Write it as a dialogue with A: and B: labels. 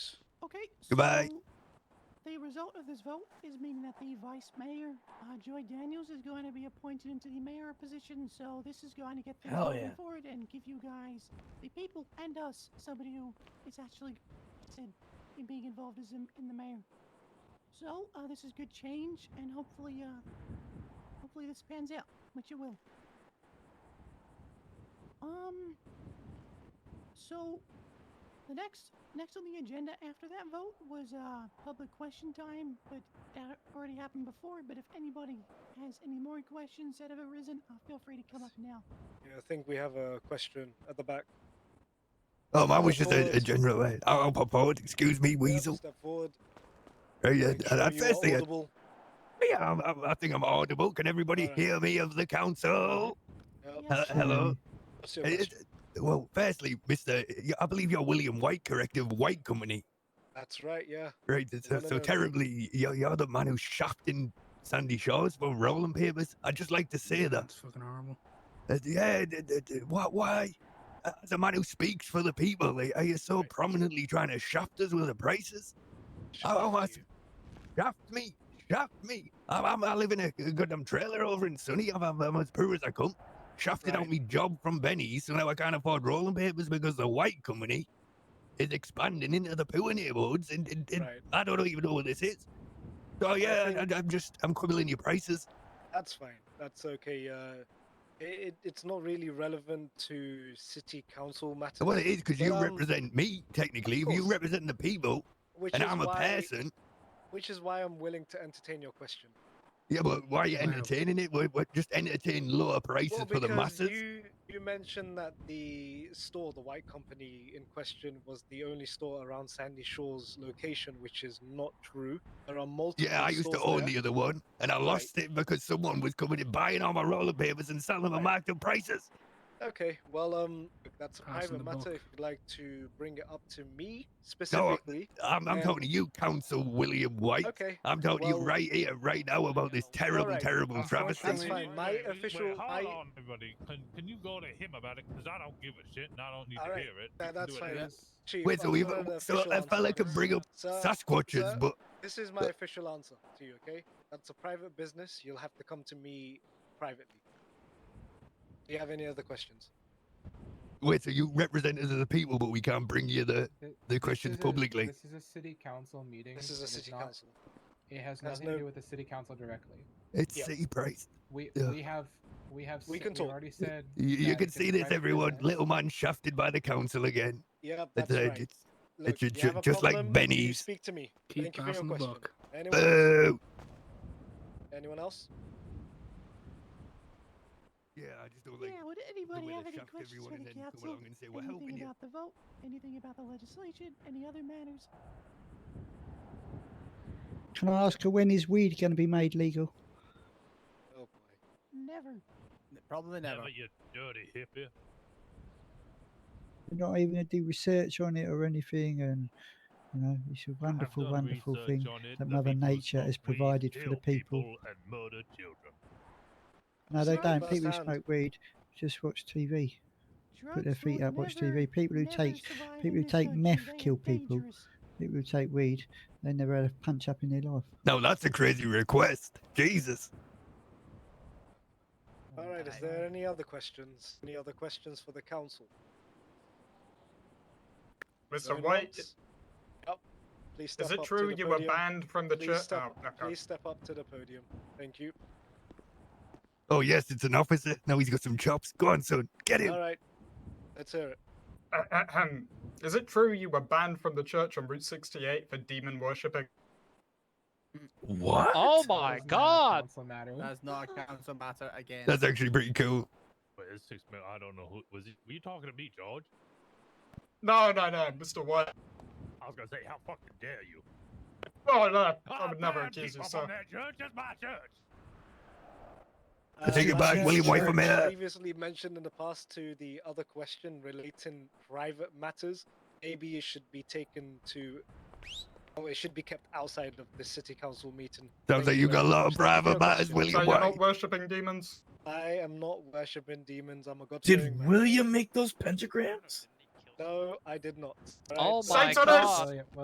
A: Okay.
B: Goodbye.
A: so the result of this vote is meaning that the vice mayor, uh, Joy Daniels, is going to be appointed into the mayor position. So this is going to get things
C: Hell
A: moving
C: yeah.
A: forward and give you guys, the people and us, somebody who is actually said in being involved as in, in the mayor. So uh, this is good change, and hopefully, uh, hopefully this pans out, which it will. Um. So the next next on the agenda after that vote was uh, public question time, but that already happened before. But if anybody has any more questions that have arisen, uh, feel free to come up now.
D: Yeah, I think we have a question at the back.
B: Oh, mine was just a, a
D: Forward.
B: general. uh, I'll, I'll pop forward. Excuse me,
D: Yep,
B: weasel.
D: Step forward.
B: Uh, yeah,
D: Make
B: uh,
D: sure
B: uh,
D: you are
B: firstly, uh,
D: audible.
B: yeah, I'm, I'm, I think I'm audible. Can everybody
D: Alright.
B: hear me of the
D: Oh,
B: council?
D: Yep,
A: Yeah,
B: Uh,
A: sure.
B: hello.
D: what's your
B: Uh,
D: question?
B: uh, well, firstly, Mister, I believe you're William White, corrective White Company,
D: That's right, yeah.
B: right? So,
D: no,
B: so
D: no.
B: terribly, you're, you're the man who shafting Sandy Shores for rolling papers. I'd just like to say that.
E: That's fucking horrible.
B: Uh, yeah, d- d- d- why? why? Uh, As a man who speaks for the people, are are you so
D: Right.
B: prominently trying to shaft us with the prices?
D: Shaft
B: oh, I s-
D: you.
B: Shaft me, shaft me. I'm, I'm, I live in a g- goddamn trailer over in Sunny. I'm, I'm, I'm as poor as I come. Shafted out
D: Right.
B: me job from Benny's, so now I can't afford rolling papers because the white company is expanding into the poor neighborhoods, and, and, and
D: Right,
B: I don't even know what this is. So yeah,
D: think-
B: I, I'm just I'm quibbling your prices.
D: that's fine. That's okay. Uh, it, it, it's not really relevant to city council matters.
B: Well, it is because
D: But,
B: you
D: um,
B: represent me technically.
D: of
B: If you
D: course.
B: represent the people,
D: which
B: and
D: is
B: I'm a
D: why,
B: person.
D: Which is why I'm willing to entertain your question.
B: Yeah, but why are you
E: Wow.
B: entertaining it? We're, we're just entertaining lower prices
D: Well,
B: for the
D: because
B: masses.
D: you you mentioned that the store, the white company in question, was the only store around Sandy Shores location, which is not true. There are multiple.
B: Yeah, I used to
D: stores
B: own
D: there.
B: the other one, and I
D: Right.
B: lost it because someone was coming and buying all my roller papers and selling them at
D: Right.
B: marked up prices.
D: Okay, well, um, look, that's a
E: Passing
D: private
E: the
D: matter.
E: buck.
D: If you'd like to bring it up to me specifically,
B: I'm, I'm
D: Yeah.
B: talking to you, Council William White.
D: okay,
B: I'm talking to
D: well-
B: you right here, right now, about this terrible,
D: Alright,
B: terrible travesty.
D: that's fine. My official-
F: Wait, hold
D: I-
F: on, everybody. Can, can you go to him about it? Because I don't give a shit, and I don't need
D: All
F: to
D: right,
F: hear it.
D: that-
F: You can
D: that's
F: do it
D: fine.
F: later.
D: Chief,
B: Wait,
D: I've
B: so we
D: got an
B: so
D: official
B: a fella
D: answer.
B: can bring up
D: Sir,
B: Sasquatches,
D: uh, sir,
B: but
D: this is my official answer to you. Okay, that's a private business. You'll have to come to me privately. Do you have any other questions?
B: wait, so you represent us as the people, but we can't bring you the
D: Uh,
G: Th-
B: the
G: this
B: questions
G: is a-
B: publicly.
G: This is a city council meeting.
D: This is a
G: and it's
D: city
G: not-
D: council.
G: It has
D: There's
G: nothing to
D: no-
G: do with the city council directly.
B: It's
D: yeah.
B: city price.
G: We
B: Yeah.
G: we have we have
D: We
G: sa-
D: can
G: we've
D: talk.
G: already said
B: You, you
G: that
B: can
G: it's a
B: see this,
G: private
B: everyone.
G: business.
B: Little man shafted by the council again.
D: Yeah,
B: It's,
D: that's
B: uh,
D: right.
B: it's-
D: Look,
B: ju-
D: you have
B: ju-
D: a
B: just like
D: problem, you
B: Benny's. Uh,
D: Speak to me.
E: Keep
D: Thank you for your
E: passing the
D: question.
E: buck.
D: Anyone?
B: Boo!
D: else? Anyone else?
B: Yeah, I just don't like
A: Yeah, would
B: the
A: anybody
B: way
A: have
B: they
A: any
B: shaft
A: questions
B: everyone
A: for
B: and
A: the
B: then come
A: council?
B: along and say we're helping
A: Anything
B: you.
A: about the vote? Anything about the legislation? Any other matters?
H: Can I ask her when is weed going to be made legal?
D: Oh boy.
A: Never.
C: Probably never.
F: Never, you dirty hippie.
H: They're not even going to do research on it or anything, and you know, it's a
F: I've
H: wonderful,
F: done
H: wonderful
F: research
H: thing.
F: on it.
H: that
F: The
H: Mother
F: people
H: Nature has
F: smoke weed,
H: provided for
F: kill
H: the people.
F: and murder children.
H: No, they
A: Sorry,
H: don't.
D: first
H: People who
D: hand.
H: smoke weed just watch TV, put their
A: Drugs
H: feet
A: will
H: up, watch
A: never-
H: TV. People who
A: never
H: take
A: survive
H: people
A: in
H: who
A: this
H: take
A: country.
H: meth
A: They are
H: kill people.
A: dangerous.
H: people who take weed, they never had a punch up in their life.
B: No, that's a crazy request. Jesus.
D: All right. Is there any other questions? Any other questions for the council? Is there
I: Mr.
D: anyone
I: White,
D: else? Yep. Please step
I: is
D: up
I: it
D: to
I: true
D: the
I: you were
D: podium.
I: banned from the
D: Please
I: church?
D: step, up-
I: Oh, okay.
D: please step up to the podium. Thank you.
B: Oh yes, it's an officer. Now he's got some chops. Go on, son. Get him.
D: All right. Let's hear it.
I: Uh, ahem. Is it true you were banned from the church on Route 68 for demon worshipping?
B: What?
J: Oh
G: That
J: my
G: is not a
J: god!
G: council matter.
C: That's not a council matter again.
B: That's actually pretty cool.
F: But it's six minutes. I don't know who was it. Were you talking to me, George?
I: No, no, no, Mr. White.
F: I was gonna say, how fucking dare you?
I: Oh, no, I
F: Ah,
I: would never
F: ban
I: accuse you,
F: people
I: sir.
F: from that church. That's my church.
B: I take it back,
D: as
B: William White from
D: George
B: here.
D: Uh, Previously mentioned in the past to the other question relating private matters, maybe it should be taken to. Oh, it should be kept outside of the city council meeting.
B: Sounds
D: Thank
B: like you
D: very
B: got a lot
D: much.
B: of
D: Thank you
B: private
D: for your
B: matters,
D: question.
I: So
B: William
I: you're not
B: White.
I: worshipping demons?
D: I am not worshipping demons. I'm a god.
C: Did William make those pentagrams?
D: No, I did not. Alright,
J: Oh
D: so-
J: my
I: Saints on us!
J: god!
G: William-